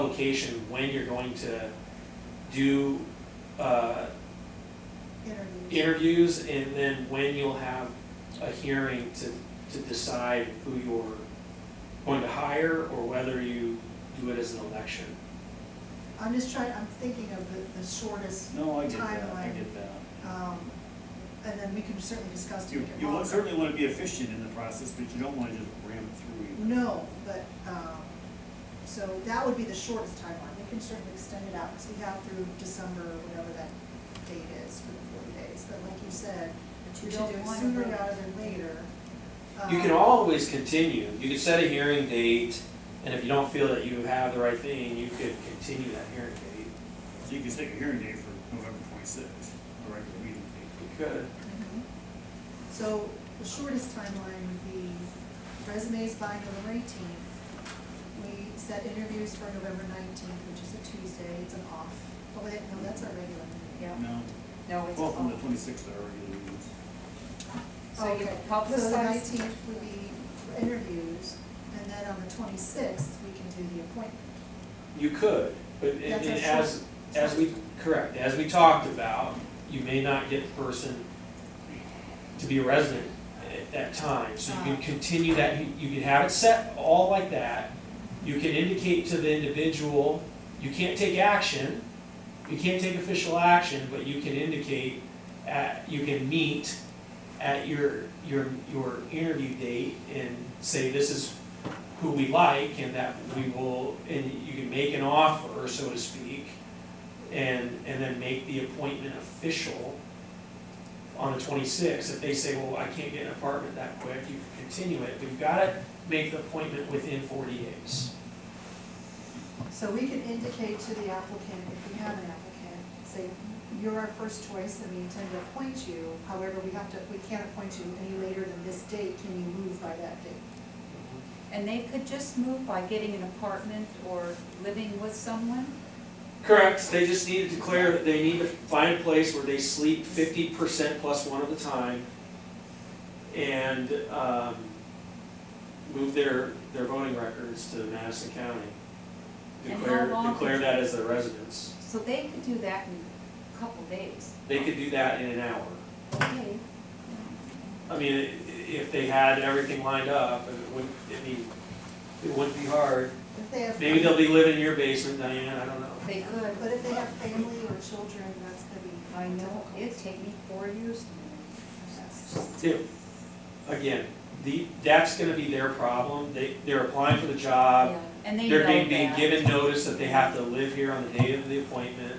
publication when you're going to do uh, interviews. interviews and then when you'll have a hearing to, to decide who you're going to hire or whether you do it as an election. I'm just trying, I'm thinking of the, the shortest, No, I get that, I Timeline. get that. um, and then we can certainly discuss to You, make it you want- longer. certainly want to be efficient in the process, but you don't want to just ram it through. No, but, um, so that would be the shortest timeline, we can certainly extend it out, because we have through December, or whatever that date is for the forty days, but like you said, But we you should don't do it want sooner to- rather than later. You can Um, always continue, you could set a hearing date, and if you don't feel that you have the right thing, you could continue that hearing date. So you can set your hearing date for November twenty-sixth, or regular meeting date. You could. Mhm. So the shortest timeline would be resumes by November eighteenth. We set interviews for November nineteenth, which is a Tuesday, it's an off. Oh, wait, no, that's our regular meeting. Yeah, No, no, it's. twelfth and the all- twenty-sixth are regular meetings. So you Oh, Okay, So the publicize. nineteenth would be interviews, and then on the twenty-sixth, we can do the appointment. You could, but it- That's it- a as, as we, correct, as we talked about, you may not get the person to be a resident at that time, so you can Ah. continue that, you you can have it set all like that. You can indicate to the individual, you can't take action, you can't take official action, but you can indicate, at, you can meet at your, your, your interview date and say, this is who we like and that we will, and you can make an offer, so to speak, and, and then make the appointment official on the twenty-sixth. If they say, well, I can't get an apartment that quick, you can continue it, but you've gotta make the appointment within forty days. So we can indicate to the applicant, if we have an applicant, say, you're our first choice and we intend to appoint you. However, we have to, we can't appoint you any later than this date. Can you move by that date? And they could just move by getting an apartment or living with someone? Correct, they just need to declare that they need to find a place where they sleep fifty percent plus one at a time and, um, move their, their voting records to Madison County. And how Declare, long- declare that as their residence. So they could do that in a couple days. They could do that in an hour. Okay, I mean, i- if they had everything lined up, it wouldn't, I mean, it wouldn't be hard. If they have. Maybe they'll be living in your basement, Diane, I don't know. they But could. if they have family or children, that's gonna be. I know, it'd difficult. take me four years to move. That's- Two, again, the, that's gonna be their problem, they, they're applying for the job, Yeah, And they know Uh, they're being, that. being given notice that they have to live here on the date of the appointment.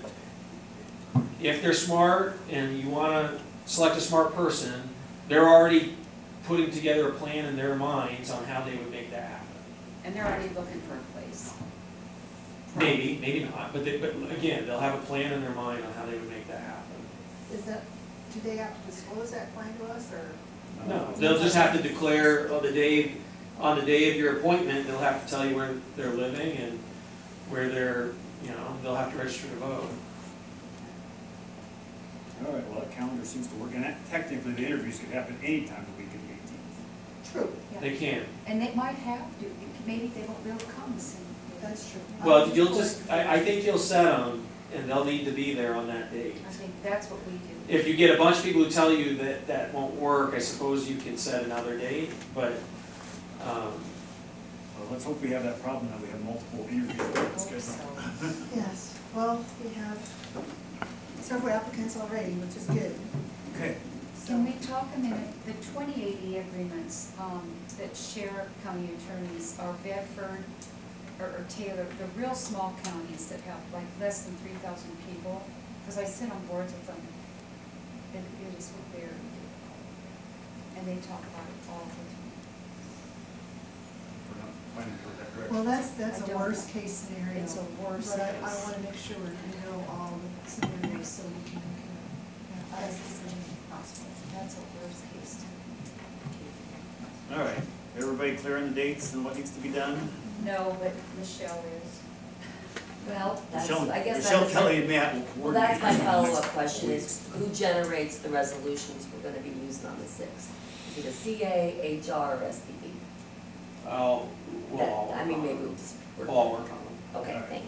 If they're smart and you wanna select a smart person, they're already putting together a plan in their minds on how they would make that happen. And they're already looking for a place. Maybe, maybe not, but they, but again, they'll have a plan in their mind on how they would make that happen. Is that, do they have to disclose that plan to us or? No, they'll just have to declare on the day, on the day of your appointment, they'll have to tell you where they're living and where they're, you know, they'll have to register to vote. All right, well, that calendar seems to work, and that- technically, the interviews could happen any time of the week of the eighteenth. True. They can. And they might have to, maybe they won't be able to come the same day. That's true. Well, you'll just, I, I think you'll set them and they'll need to be there on that date. I think that's what we do. If you get a bunch of people who tell you that that won't work, I suppose you can set another date, but, um, Well, let's hope we have that problem, that we have multiple interviews Hope scheduled. so. Yes, well, we have several applicants already, which is good, Okay, so. Can we talk a minute, the twenty eighty agreements, um, that sheriff county attorneys are Bedford or, or Taylor, the real small counties that have like less than three thousand people, cause I sit on boards with them. And it is what they're, and they talk about it all the we're not planning for that, correct? Well, that's, that's I a don't- worst case time, scenario. it's a worse But I, I case. wanna make sure we know all the scenarios so we can make a That's best the decision. same possible, that's a worst case. All right, everybody clear on the dates and what needs to be done? No, but Michelle is. Well, that's, Michelle, I guess Michelle Kelly that's, and Matt will coordinate. well, that's my in the next follow-up couple question weeks. is, who generates the resolutions we're gonna be using on the sixth? Is it a CA, HR, or SBB? I'll, That- well. I mean, maybe we'll just. work- Well, I'll work on them. Okay, All right. thanks.